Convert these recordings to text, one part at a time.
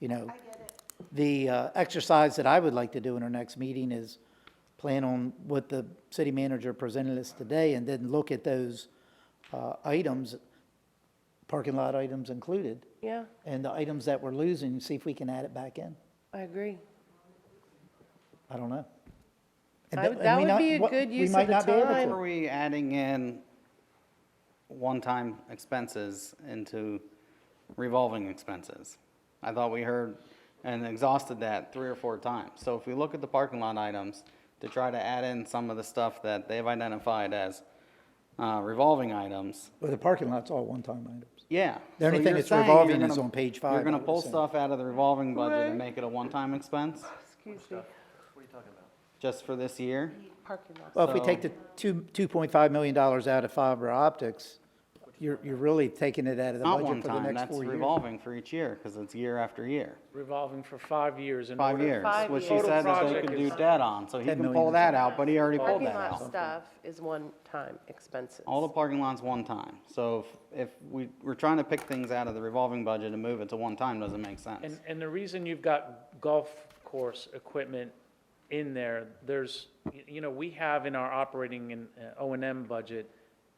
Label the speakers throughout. Speaker 1: you know. The uh, exercise that I would like to do in our next meeting is plan on what the city manager presented us today and then look at those uh, items, parking lot items included,
Speaker 2: Yeah,
Speaker 1: and the items that we're losing, see if we can add it back in.
Speaker 2: I agree.
Speaker 1: I don't know. And
Speaker 2: I
Speaker 1: th- and
Speaker 2: would- that
Speaker 1: we
Speaker 2: would
Speaker 1: not-
Speaker 2: be a
Speaker 1: what-
Speaker 2: good
Speaker 1: we
Speaker 2: use of
Speaker 1: might
Speaker 2: the
Speaker 1: not be able to.
Speaker 2: time.
Speaker 3: Are we adding in one-time expenses into revolving expenses? I thought we heard and exhausted that three or four times. So if we look at the parking lot items, to try to add in some of the stuff that they've identified as uh, revolving items,
Speaker 1: Well, the parking lot's all one-time items.
Speaker 3: yeah.
Speaker 1: The only
Speaker 3: So
Speaker 1: thing
Speaker 3: you're
Speaker 1: that's
Speaker 3: saying you're
Speaker 1: revolving is
Speaker 3: gonna-
Speaker 1: on page
Speaker 3: You're
Speaker 1: five, I
Speaker 3: gonna
Speaker 1: would
Speaker 3: pull
Speaker 1: assume.
Speaker 3: stuff out of the revolving budget
Speaker 2: Right.
Speaker 3: and make it a one-time expense
Speaker 2: Excuse me,
Speaker 3: just for this year?
Speaker 2: parking lot.
Speaker 1: Well, if we take the two, two point five million dollars out of fiber optics, you're, you're really taking it out of the
Speaker 3: Not
Speaker 1: budget
Speaker 3: one
Speaker 1: for the
Speaker 3: time,
Speaker 1: next
Speaker 3: that's
Speaker 1: four years.
Speaker 3: revolving for each year, because it's year after year.
Speaker 4: revolving for five years in
Speaker 3: Five
Speaker 4: order-
Speaker 3: years,
Speaker 2: Five
Speaker 3: which he
Speaker 2: years.
Speaker 3: said that they
Speaker 4: Total
Speaker 3: could do
Speaker 4: project is-
Speaker 3: debt on, so he
Speaker 1: 10
Speaker 3: can
Speaker 1: million
Speaker 3: pull
Speaker 1: is-
Speaker 3: that out, but he already pulled
Speaker 2: Parking
Speaker 3: that
Speaker 2: lot
Speaker 3: out.
Speaker 2: stuff is one-time expenses.
Speaker 3: All the parking lots one time, so if, if we, we're trying to pick things out of the revolving budget and move it to one time doesn't make
Speaker 4: And,
Speaker 3: sense.
Speaker 4: and the reason you've got golf course equipment in there, there's, y- you know, we have in our operating and uh, O and M budget,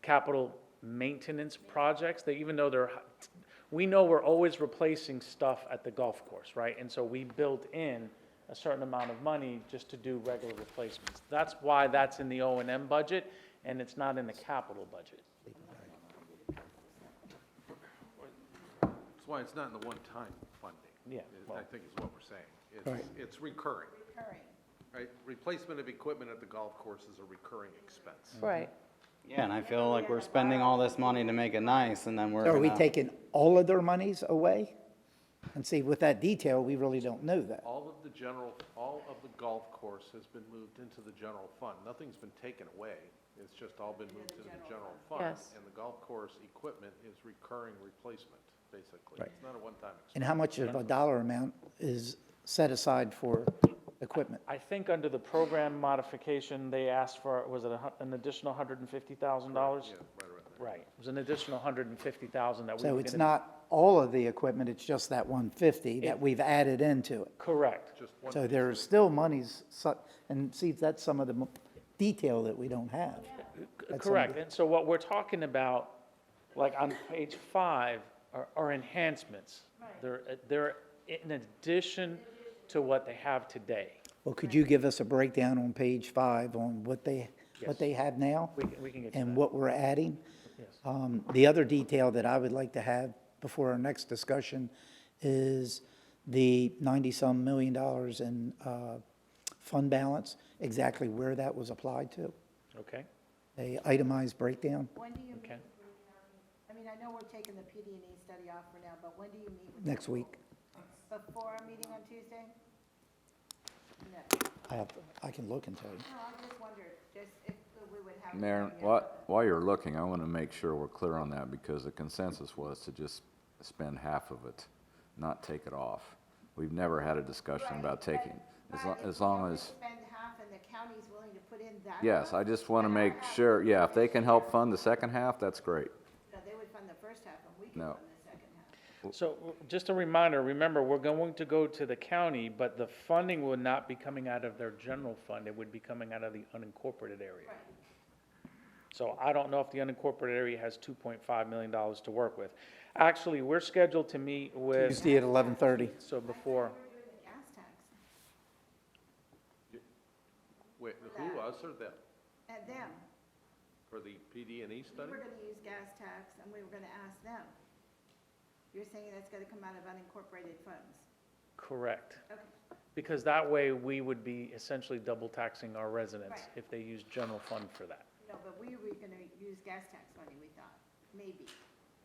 Speaker 4: capital maintenance projects, that even though they're, h- we know we're always replacing stuff at the golf course, right? And so we built in a certain amount of money just to do regular replacements. That's why that's in the O and M budget, and it's not in the capital budget.
Speaker 5: That's why it's not in the one-time funding.
Speaker 4: Yeah,
Speaker 5: is-
Speaker 4: well-
Speaker 5: I think is what we're saying. It's, it's recurring. Recurring. Right, replacement of equipment at the golf course is a recurring expense.
Speaker 2: Right,
Speaker 3: Yeah, and I feel like we're spending all this money to make it nice, and then we're
Speaker 1: Are we
Speaker 3: gonna,
Speaker 1: taking all of their monies away? And see, with that detail, we really don't know that.
Speaker 5: All of the general, all of the golf course has been moved into the general fund. Nothing's been taken away. It's just all been moved into the general fund.
Speaker 2: Yes.
Speaker 5: And the golf course equipment is recurring replacement, basically. It's not a one-time expense.
Speaker 1: And how much of a dollar amount is set aside for equipment?
Speaker 4: I think under the program modification, they asked for, was it a hu- an additional hundred and fifty thousand dollars? Right, it was an additional hundred and fifty thousand that we were
Speaker 1: So it's
Speaker 4: gonna-
Speaker 1: not all of the equipment, it's just that one fifty that we've added into it.
Speaker 4: Correct,
Speaker 5: Just one,
Speaker 1: So there's still monies, su- and see, that's some of the mo- detail that we don't have.
Speaker 4: C- correct, and so what we're talking about, like on page five, are, are enhancements. They're, uh, they're in addition to what they have today.
Speaker 1: Well, could you give us a breakdown on page five on what they, what they have now?
Speaker 4: We can- we can get to
Speaker 1: And
Speaker 4: that.
Speaker 1: what we're adding? Um, The other detail that I would like to have before our next discussion is the ninety-some million dollars in uh, fund balance, exactly where that was applied to,
Speaker 4: Okay,
Speaker 1: a itemized breakdown.
Speaker 6: When do you meet?
Speaker 4: Okay.
Speaker 6: with- I mean, I know we're taking the PD and E study off for now, but when do you meet with?
Speaker 1: Next week,
Speaker 6: Before our meeting on Tuesday? No,
Speaker 1: I have, I can look and tell you.
Speaker 6: no, I just wondered, just if we would have.
Speaker 7: Mayor, while, while you're looking, I want to make sure we're clear on that, because the consensus was to just spend half of it, not take it off. We've never had a discussion about taking, as lo-
Speaker 6: But
Speaker 7: as
Speaker 6: if
Speaker 7: long
Speaker 6: we
Speaker 7: as,
Speaker 6: Spend half and the county's willing to put in that.
Speaker 7: yes, I
Speaker 6: much,
Speaker 7: just want to
Speaker 6: then
Speaker 7: make
Speaker 6: have-
Speaker 7: sure, yeah, if they can help fund the second half, that's great.
Speaker 6: No, they would fund the first half and we can
Speaker 7: No.
Speaker 6: fund the second half.
Speaker 4: so w- just a reminder, remember, we're going to go to the county, but the funding will not be coming out of their general fund, it would be coming out of the unincorporated area.
Speaker 6: Right.
Speaker 4: So I don't know if the unincorporated area has two point five million dollars to work with. Actually, we're scheduled to meet with,
Speaker 1: Tuesday at eleven thirty.
Speaker 4: so before,
Speaker 6: We're doing the gas tax
Speaker 5: wait, who, us or them?
Speaker 6: and them.
Speaker 5: For the PD and E
Speaker 6: We
Speaker 5: study?
Speaker 6: were gonna use gas tax and we were gonna ask them. You're saying that's gonna come out of unincorporated funds?
Speaker 4: correct.
Speaker 6: Okay.
Speaker 4: Because that way, we would be essentially double taxing our residents
Speaker 6: Right.
Speaker 4: if they use general fund for that.
Speaker 6: No, but we were gonna use gas tax money, we thought, maybe,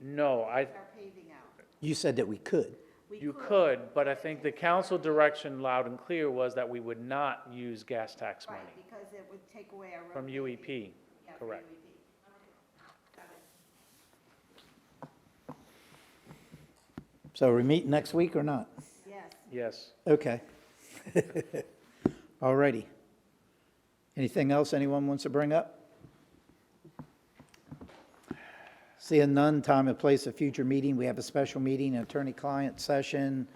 Speaker 4: No, I,
Speaker 6: our paving out.
Speaker 1: You said that we could.
Speaker 6: We
Speaker 4: you could, but I think the council direction loud and clear was that we would not use gas tax money
Speaker 6: Right, because it would take away our. road
Speaker 4: from UEP,
Speaker 6: Yeah, from E
Speaker 4: correct?
Speaker 6: UEP.
Speaker 1: So are we meeting next week or not?
Speaker 6: Yes,
Speaker 4: Yes.
Speaker 1: Okay. All righty. Anything else anyone wants to bring up? Seeing none, time and place of future meeting. We have a special meeting, attorney-client session